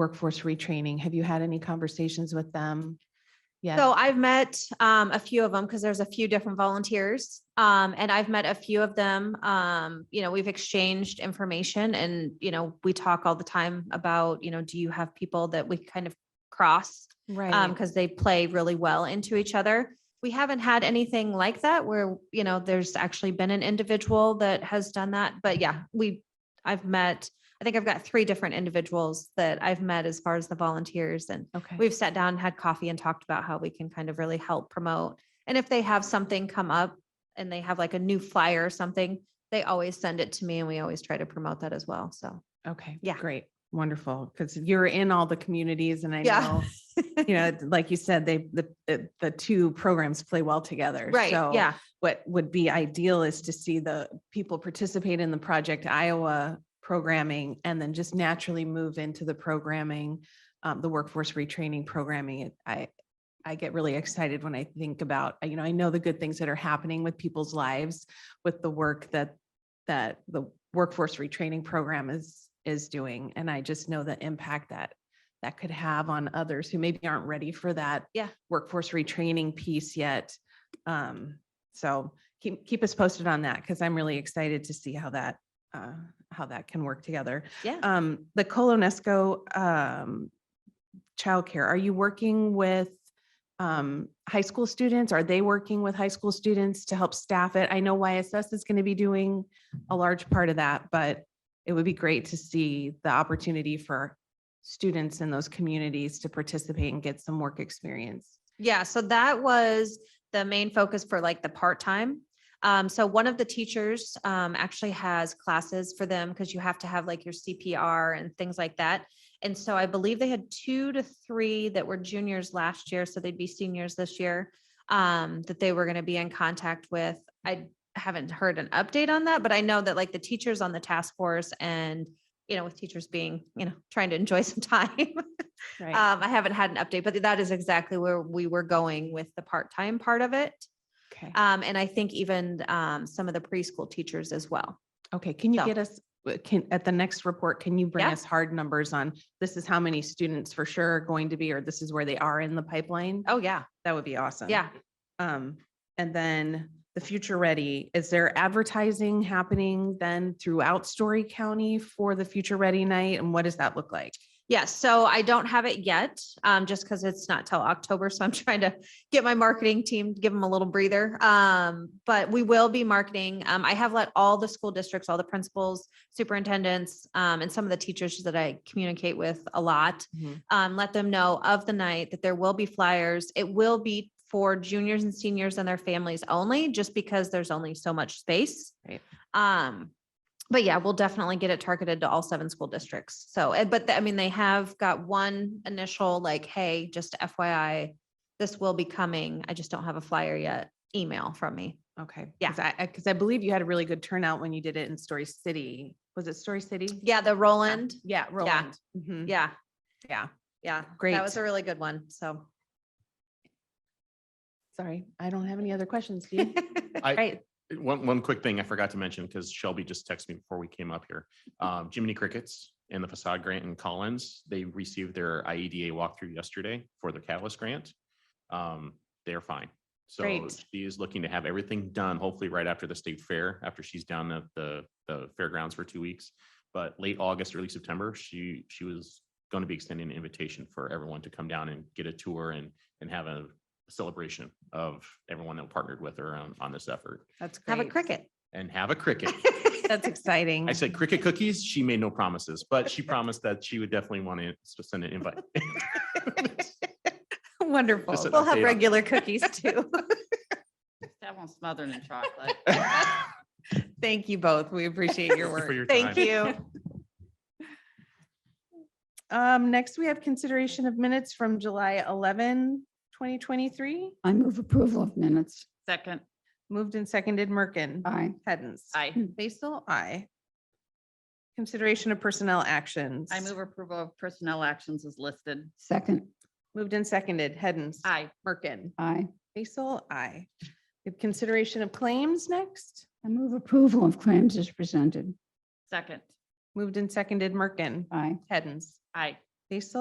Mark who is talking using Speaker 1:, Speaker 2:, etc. Speaker 1: workforce retraining? Have you had any conversations with them? yet?
Speaker 2: So I've met um, a few of them because there's a few different volunteers, um, and I've met a few of them. Um, you know, we've exchanged information, and you know, we talk all the time about you know, do you have people that we kind of cross
Speaker 1: Right.
Speaker 2: because they play really well into each other. We haven't had anything like that where you know there's actually been an individual that has done that, but yeah, we I've met. I think I've got three different individuals that I've met as far as the volunteers and
Speaker 1: Okay.
Speaker 2: we've sat down, had coffee and talked about how we can kind of really help promote. And if they have something come up and they have like a new flyer or something, they always send it to me and we always try to promote that as well. So.
Speaker 1: Okay.
Speaker 2: Yeah.
Speaker 1: Great. Wonderful. Because you're in all the communities and I
Speaker 2: Yeah.
Speaker 1: know, you know, like you said, they, the, the, the two programs play well together.
Speaker 2: Right,
Speaker 1: So
Speaker 2: yeah,
Speaker 1: what would be ideal is to see the people participate in the Project Iowa programming and then just naturally move into the programming, um, the workforce retraining programming. It- I, I get really excited when I think about, you know, I know the good things that are happening with people's lives with the work that, that the workforce retraining program is, is doing. And I just know the impact that that could have on others who maybe aren't ready for that
Speaker 2: Yeah.
Speaker 1: workforce retraining piece yet. Um, so keep, keep us posted on that because I'm really excited to see how that, uh, how that can work together.
Speaker 2: Yeah.
Speaker 1: Um, the Colonesco, um, childcare, are you working with, um, high school students? Are they working with high school students to help staff it? I know YSS is going to be doing a large part of that, but it would be great to see the opportunity for students in those communities to participate and get some work experience.
Speaker 2: Yeah, so that was the main focus for like the part-time. Um, so one of the teachers um actually has classes for them because you have to have like your CPR and things like that. And so I believe they had two to three that were juniors last year, so they'd be seniors this year. Um, that they were gonna be in contact with. I haven't heard an update on that, but I know that like the teachers on the task force and you know, with teachers being, you know, trying to enjoy some time. Um, I haven't had an update, but that is exactly where we were going with the part-time part of it.
Speaker 1: Okay.
Speaker 2: Um, and I think even, um, some of the preschool teachers as well.
Speaker 1: Okay, can you
Speaker 2: So-
Speaker 1: get us, uh, can, at the next report, can you bring
Speaker 2: Yeah.
Speaker 1: us hard numbers on this is how many students for sure are going to be, or this is where they are in the pipeline?
Speaker 2: Oh, yeah.
Speaker 1: That would be awesome.
Speaker 2: Yeah.
Speaker 1: Um, and then the Future Ready, is there advertising happening then throughout Story County for the Future Ready Night? And what does that look like?
Speaker 2: Yeah. So I don't have it yet, um, just because it's not till October. So I'm trying to get my marketing team, give them a little breather. Um, but we will be marketing. Um, I have let all the school districts, all the principals, superintendents, um, and some of the teachers that I communicate with a lot
Speaker 1: Mhm.
Speaker 2: um, let them know of the night that there will be flyers. It will be for juniors and seniors and their families only, just because there's only so much space.
Speaker 1: Right.
Speaker 2: Um, but yeah, we'll definitely get it targeted to all seven school districts. So, eh, but the- I mean, they have got one initial like, hey, just FYI, this will be coming. I just don't have a flyer yet. Email from me.
Speaker 1: Okay.
Speaker 2: Yeah.
Speaker 1: Cause I, I- cause I believe you had a really good turnout when you did it in Story City. Was it Story City?
Speaker 2: Yeah, Mm-hmm. the Roland.
Speaker 1: Yeah, Roland. Mhm.
Speaker 2: Yeah.
Speaker 1: Yeah.
Speaker 2: Yeah.
Speaker 1: Great.
Speaker 2: That was a really good one. So.
Speaker 1: Sorry, I don't have any other questions. Do you?
Speaker 3: I-
Speaker 1: Great.
Speaker 3: One, one quick thing I forgot to mention, because Shelby just texted me before we came up here. Um, Jiminy Crickets and the facade grant in Collins, they received their IEDA walkthrough yesterday for their catalyst grant. Um, they're fine. So
Speaker 1: Great.
Speaker 3: she is looking to have everything done, hopefully right after the state fair, after she's down at the, the fairgrounds for two weeks. But late August, early September, she, she was going to be extending an invitation for everyone to come down and get a tour and, and have a celebration of everyone that partnered with her on, on this effort
Speaker 1: That's great.
Speaker 2: Have a cricket.
Speaker 3: and have a cricket.
Speaker 1: That's exciting.
Speaker 3: I said cricket cookies. She made no promises, but she promised that she would definitely want to s- send an invite.
Speaker 2: Wonderful.
Speaker 3: an
Speaker 2: We'll have
Speaker 3: update on-
Speaker 2: regular cookies too.
Speaker 4: That one's smothered in chocolate.
Speaker 1: Thank you both. We appreciate your
Speaker 3: Thank you
Speaker 1: work.
Speaker 3: for your
Speaker 2: Thank
Speaker 3: time.
Speaker 2: you.
Speaker 1: Um, next, we have consideration of minutes from July 11, 2023.
Speaker 5: I move approval of minutes.
Speaker 4: Second,
Speaker 1: Moved and seconded Merkin.
Speaker 2: Uh,
Speaker 5: Aye.
Speaker 1: Hens.
Speaker 4: I,
Speaker 1: Basil, aye. Consideration of personnel actions.
Speaker 4: I move approval of personnel actions as listed.
Speaker 5: Second.
Speaker 1: Moved and seconded Hens.
Speaker 4: I,
Speaker 1: Merkin.
Speaker 5: Aye.
Speaker 1: Basil, aye. We have Consideration of claims next.
Speaker 5: I move approval of claims as presented.
Speaker 4: second,
Speaker 1: Moved and seconded Merkin.
Speaker 5: Aye.
Speaker 1: Hens.
Speaker 4: I,
Speaker 1: They still